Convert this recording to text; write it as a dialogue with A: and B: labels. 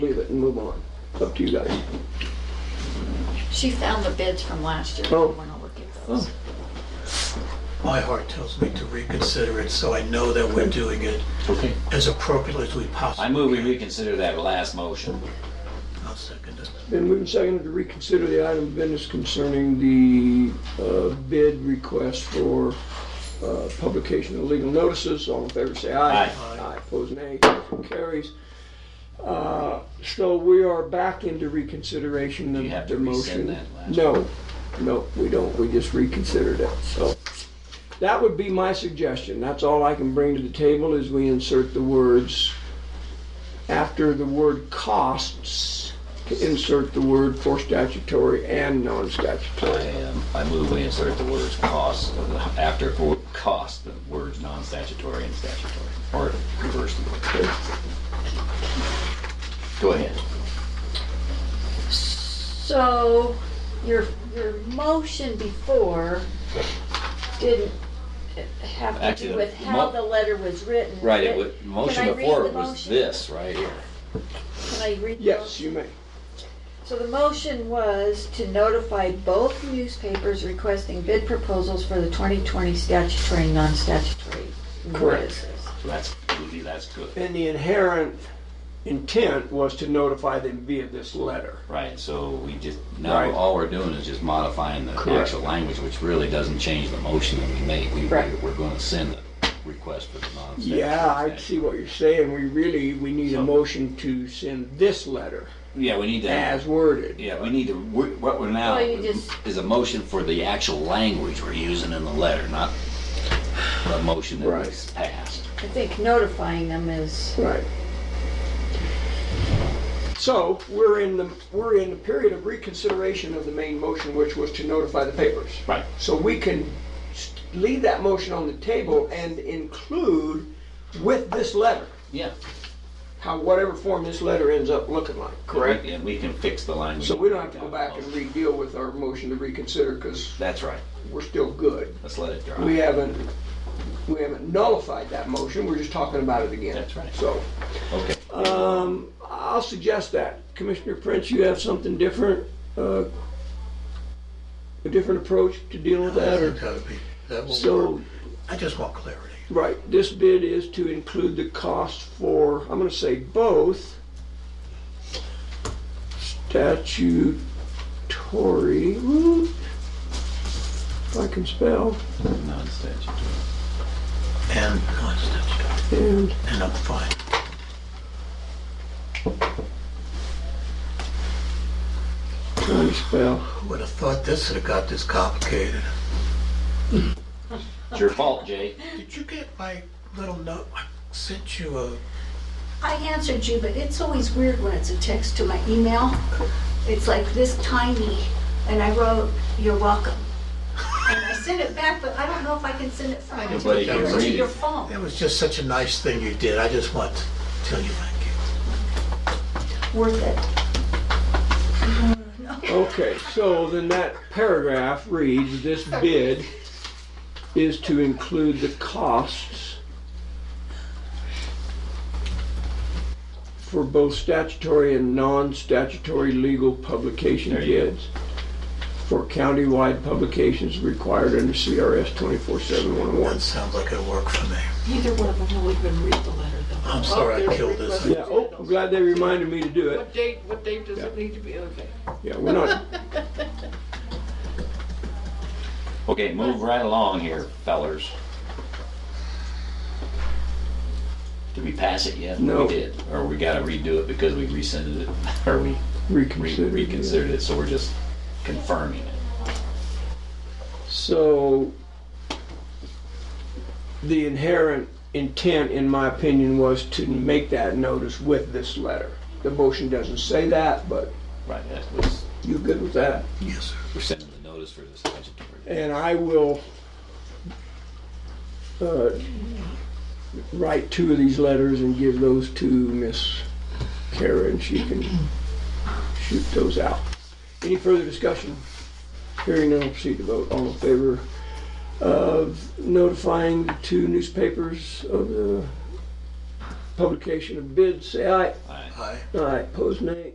A: and move on. It's up to you guys.
B: She found the bids from last year.
A: Oh.
B: We're gonna look at those.
C: My heart tells me to reconsider it, so I know that we're doing it
D: Okay.
C: as appropriately as we possibly
D: I
C: can.
D: move we reconsider that last motion.
C: I'll second it.
A: Been moved and seconded to reconsider the item of business concerning the uh, bid request for uh, publication of legal notices. All in favor, say aye.
D: Aye.
A: Aye, opposed nay, motion carries. Uh, So we are back into reconsideration
D: You
A: of
D: have
A: the
D: to rescind
A: motion.
D: that last-
A: No, no, we don't, we just reconsidered it, so. That would be my suggestion, that's all I can bring to the table is we insert the words, after the word costs, to insert the word for statutory and non-statutory.
D: Um, I move we insert the words cost, after for cost, the words non-statutory and statutory, or reverse the word. Go ahead.
A: Oh.
B: So your, your motion before didn't have to
D: Actually,
B: do
D: the
B: with how
D: mo-
B: the letter was written.
D: Right,
B: but-
D: it was,
B: Can I
D: motion
B: read
D: before
B: the
D: it was
B: motion?
D: this, right here.
B: Can I read? the
A: Yes,
B: motion?
A: you may.
B: So the motion was to notify both newspapers requesting bid proposals for the 2020 statutory and non-statutory
A: Correct.
B: notices.
D: So that's, believe that's good.
A: And the inherent intent was to notify them via this letter.
D: Right, so we just, now
A: Right.
D: all we're doing is just modifying the
A: Correct.
D: actual language, which really doesn't change the motion that we made. We,
B: Right.
D: we're gonna send the request for the non-statutory.
A: Yeah, I see what you're saying, we really, we need a
D: So-
A: motion to send this letter
D: Yeah, we need to.
A: as worded.
D: Yeah, we need to, we- what we're now,
B: Well, you just-
D: is a motion for the actual language we're using in the letter, not the motion that was
A: Right.
D: passed.
B: I think notifying them is,
A: Right. So, we're in the, we're in the period of reconsideration of the main motion, which was to notify the papers.
D: Right.
A: So we can s- leave that motion on the table and include with this letter,
D: Yeah.
A: how, whatever form this letter ends up looking like, correct?
D: And we can fix the language.
A: So we don't have to go back and re-deal with our motion to reconsider, because
D: That's right.
A: we're still good.
D: Let's let it
A: We
D: dry.
A: haven't, we haven't nullified that motion, we're just talking about it again.
D: That's right.
A: So,
D: Okay.
A: um, I'll suggest that. Commissioner Prince, you have something different, uh, a different approach to dealing with
C: I
A: that,
C: think
A: or?
C: that would be, that will
A: So,
C: work. I just want clarity.
A: right, this bid is to include the cost for, I'm gonna say both statutory, whoop, if I can spell,
D: Non-statutory.
C: And constant,
A: and
C: and I'm fine.
A: trying to spell.
C: Who would have thought this would have got this complicated?
D: It's your fault, Jay.
C: Did you get my little note? I sent you a,
E: I answered you, but it's always weird when it's a text to my email. It's like this tiny, and I wrote, "You're welcome." And I sent it back, but I don't know if I can send it from my
C: just
E: computer
C: don't
E: to
D: read
E: your
D: it.
E: phone.
C: that was just such a nice thing you did. I just want to tell you thank you.
E: Worth it.
A: Okay, so then that paragraph reads, this bid is to include the costs for both statutory and non-statutory legal publication
D: There you go.
A: bids for countywide publications required under CRS twenty-four seven one oh one.
C: That sounds like it'll work for me.
F: Neither one of them will even read the letter, though.
C: I'm sorry I killed this.
A: Yeah, oh, I'm glad they reminded me to do it.
F: What date, what date does it need to be, okay?
A: Yeah, we're not,
D: Okay, move right along here, fellers. Did we pass it yet?
A: No.
D: We did, or we gotta redo it because we rescinded it, or we re-
A: reconsider.
D: reconsidered it, so we're just confirming it.
A: So, the inherent intent, in my opinion, was to make that notice with this letter. The motion doesn't say that, but
D: Right, that was,
A: you good with that?
C: Yes, sir.
D: we're sending the notice for the statutory.
A: And I will uh, write two of these letters and give those to Miss Kara, and she can shoot those out. Any further discussion? Hearing none, proceed to vote. All in favor of notifying the two newspapers of the publication of bids, say aye.
D: All right.
C: Aye.
A: Aye, pose nay.